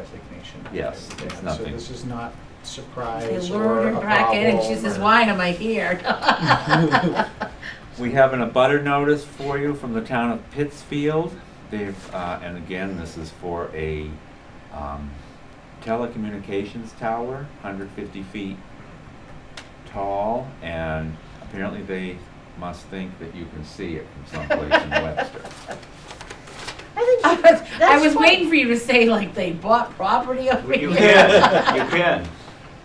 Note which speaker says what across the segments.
Speaker 1: resignation.
Speaker 2: Yes,
Speaker 1: Yeah,
Speaker 2: it's
Speaker 1: So
Speaker 2: nothing.
Speaker 1: this is not
Speaker 3: They
Speaker 1: surprise or
Speaker 3: lured
Speaker 1: a
Speaker 3: her back in and she
Speaker 1: problem
Speaker 3: says,
Speaker 1: or-
Speaker 3: why am I here?
Speaker 2: We have an abutter notice for you from the town of Pittsfield. They've, uh, and again, this is for a, um, telecommunications tower, hundred fifty feet tall, and apparently they must think that you can see it from someplace in Webster.
Speaker 3: I was- I
Speaker 4: That's
Speaker 3: was
Speaker 4: fine.
Speaker 3: waiting for you to say like they bought property over
Speaker 5: You
Speaker 3: here.
Speaker 5: can, you can,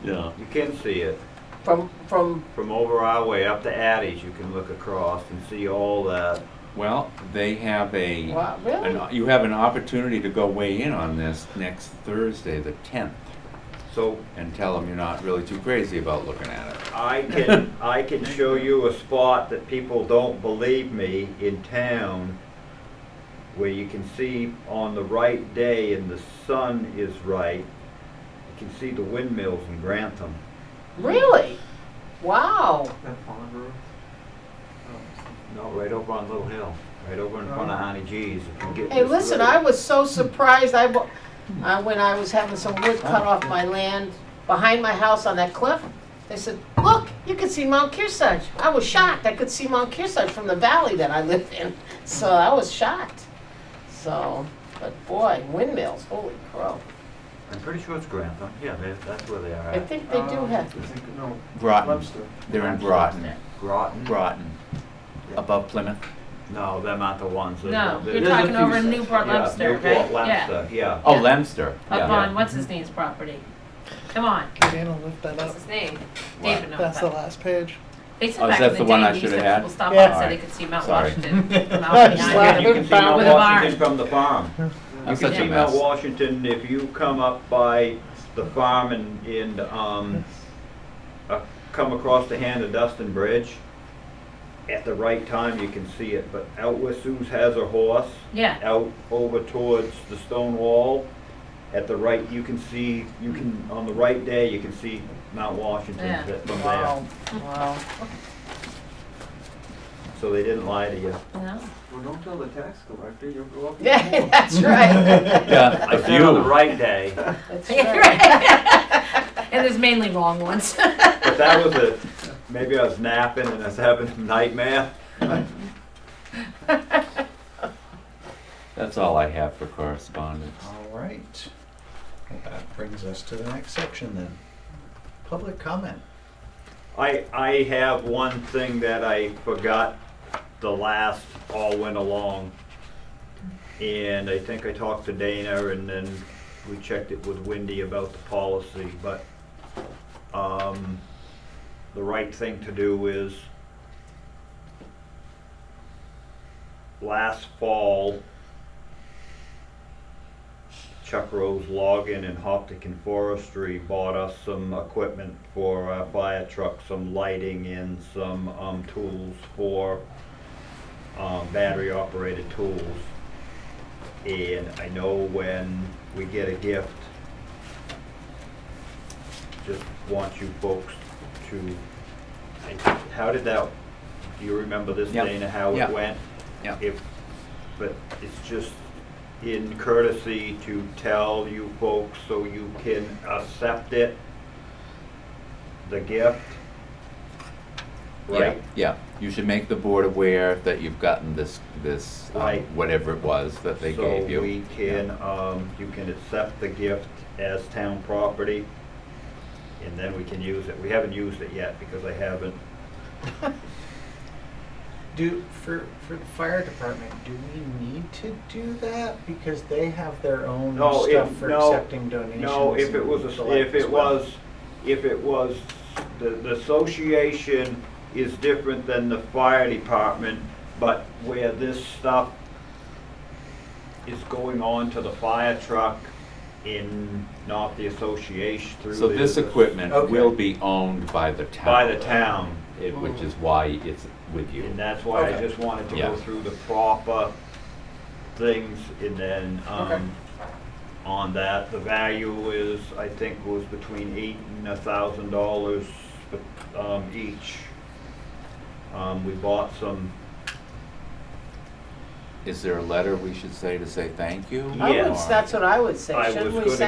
Speaker 2: Yeah.
Speaker 5: you can see it.
Speaker 4: From, from,
Speaker 5: From over our way up to Addie's, you can look across and see all that.
Speaker 2: Well, they have a.
Speaker 4: wow, really?
Speaker 2: an- You have an opportunity to go weigh in on this next Thursday, the tenth,
Speaker 5: So
Speaker 2: and tell them you're not really too crazy about looking at it.
Speaker 5: I can, I can show you a spot that people don't believe me in town where you can see on the right day and the sun is right, you can see the windmills in Grantham.
Speaker 4: Really? Wow.
Speaker 6: That pond room?
Speaker 5: No, right over on Little Hill, right over in front of Honey G's. if you get
Speaker 4: Hey,
Speaker 5: this
Speaker 4: listen,
Speaker 5: right.
Speaker 4: I was so surprised, I, wa- uh, when I was having some wood cut off my land behind my house on that cliff, they said, look, you can see Mount Kearsarge. I was shocked, I could see Mount Kearsarge from the valley that I lived in, so I was shocked. So, but boy, windmills, holy crow.
Speaker 5: I'm pretty sure it's Grantham, yeah, they- that's where they are
Speaker 4: I
Speaker 5: at.
Speaker 4: think they do
Speaker 6: Uh,
Speaker 4: have,
Speaker 6: I think- No,
Speaker 2: Groton,
Speaker 6: Webster.
Speaker 2: they're in Groton.
Speaker 5: Groton?
Speaker 2: Groton, above Plymouth.
Speaker 5: No, they're not the ones. that-
Speaker 3: No,
Speaker 5: there-
Speaker 3: you're
Speaker 5: there's a
Speaker 3: talking
Speaker 5: few
Speaker 3: over
Speaker 5: sets.
Speaker 3: Newport
Speaker 5: Yeah,
Speaker 3: Lobster,
Speaker 5: Newport
Speaker 3: right? Yeah.
Speaker 5: Lobster, yeah.
Speaker 2: Oh,
Speaker 3: Yeah.
Speaker 2: Lemster.
Speaker 3: Up
Speaker 2: Yeah.
Speaker 3: on, what's his name's property? Come on,
Speaker 7: Dan will lift that
Speaker 3: what's
Speaker 7: up.
Speaker 3: his name?
Speaker 2: What?
Speaker 3: David knows
Speaker 7: That's the
Speaker 3: that.
Speaker 7: last page.
Speaker 3: They
Speaker 2: Oh,
Speaker 3: said
Speaker 2: is
Speaker 3: back
Speaker 2: that
Speaker 3: in the
Speaker 2: the one I
Speaker 3: day, they used to
Speaker 2: should've
Speaker 3: have
Speaker 2: had?
Speaker 3: people stop up and
Speaker 2: Yeah.
Speaker 3: say they could see Mount
Speaker 2: Sorry.
Speaker 3: Washington from out
Speaker 7: That's
Speaker 3: behind
Speaker 7: like-
Speaker 5: You
Speaker 3: them.
Speaker 5: can see Mount
Speaker 3: With a barn.
Speaker 5: Washington from the farm.
Speaker 2: I'm
Speaker 5: You
Speaker 2: such
Speaker 5: can
Speaker 2: a
Speaker 5: see Mount
Speaker 2: mess.
Speaker 5: Washington if you come up by the farm and, and, um, uh, come across the hand of Dustin Bridge. At the right time, you can see it, but out where Sue's has her horse,
Speaker 3: Yeah,
Speaker 5: out over towards the stone wall, at the right, you can see, you can, on the right day, you can see Mount
Speaker 3: Yeah.
Speaker 5: Washington from there.
Speaker 4: wow, wow.
Speaker 5: So they didn't lie to you.
Speaker 3: no,
Speaker 6: Well, don't tell the tax collector, you'll go up. in the
Speaker 4: Yeah,
Speaker 6: hole.
Speaker 4: that's right,
Speaker 2: Yeah,
Speaker 5: I
Speaker 2: if
Speaker 5: said on the
Speaker 2: you,
Speaker 5: right day,
Speaker 4: that's right.
Speaker 3: Right. And there's mainly wrong ones.
Speaker 5: but that was a, maybe I was napping and I was having a nightmare.
Speaker 2: that's all I have for correspondence.
Speaker 1: All right. Well, that brings us to the next section then. Public comment.
Speaker 5: I, I have one thing that I forgot the last all went along. And I think I talked to Dana and then we checked it with Wendy about the policy, but, um, the right thing to do is last fall, Chuck Rose Logging and Hoptic and Forestry bought us some equipment for our fire truck, some lighting and some, um, tools for, um, battery operated tools. And I know when we get a gift, just want you folks to, I, how did that, do you remember this,
Speaker 2: Yep.
Speaker 5: Dana, how
Speaker 2: Yep.
Speaker 5: it went?
Speaker 2: Yeah.
Speaker 5: If, but it's just in courtesy to tell you folks so you can accept it, the gift.
Speaker 2: Yeah,
Speaker 5: Right?
Speaker 2: yeah. You should make the board aware that you've gotten this, this, um,
Speaker 5: Right.
Speaker 2: whatever it was that they
Speaker 5: So
Speaker 2: gave you.
Speaker 5: we can, um, you can accept the gift as town property and then we can use it. We haven't used it yet because I haven't.
Speaker 1: Do, for, for the fire department, do we need to do that? Because they have their own
Speaker 5: No,
Speaker 1: stuff
Speaker 5: if-
Speaker 1: for
Speaker 5: no,
Speaker 1: accepting donations.
Speaker 5: No, if it
Speaker 1: and
Speaker 5: was,
Speaker 1: the
Speaker 5: a-
Speaker 1: like
Speaker 5: if
Speaker 1: as
Speaker 5: it
Speaker 1: well.
Speaker 5: was, if it was, the, the association is different than the fire department, but where this stuff is going on to the fire truck in, not the association through.
Speaker 2: So
Speaker 5: the-
Speaker 2: this equipment
Speaker 1: Okay.
Speaker 2: will be owned by the town.
Speaker 5: By the town,
Speaker 2: it- Which is why it's with you.
Speaker 5: and that's why I
Speaker 1: Okay.
Speaker 5: just wanted to
Speaker 2: Yeah.
Speaker 5: go through the proper things and then, um, on that, the value is, I think, was between eight and a thousand dollars, um, each. Um, we bought some,
Speaker 2: Is there a letter we should say to say thank you?
Speaker 4: I
Speaker 5: Yeah.
Speaker 4: would,
Speaker 2: Or-
Speaker 4: that's what I would say,
Speaker 5: I
Speaker 4: shouldn't
Speaker 5: was
Speaker 4: we
Speaker 5: gonna
Speaker 4: send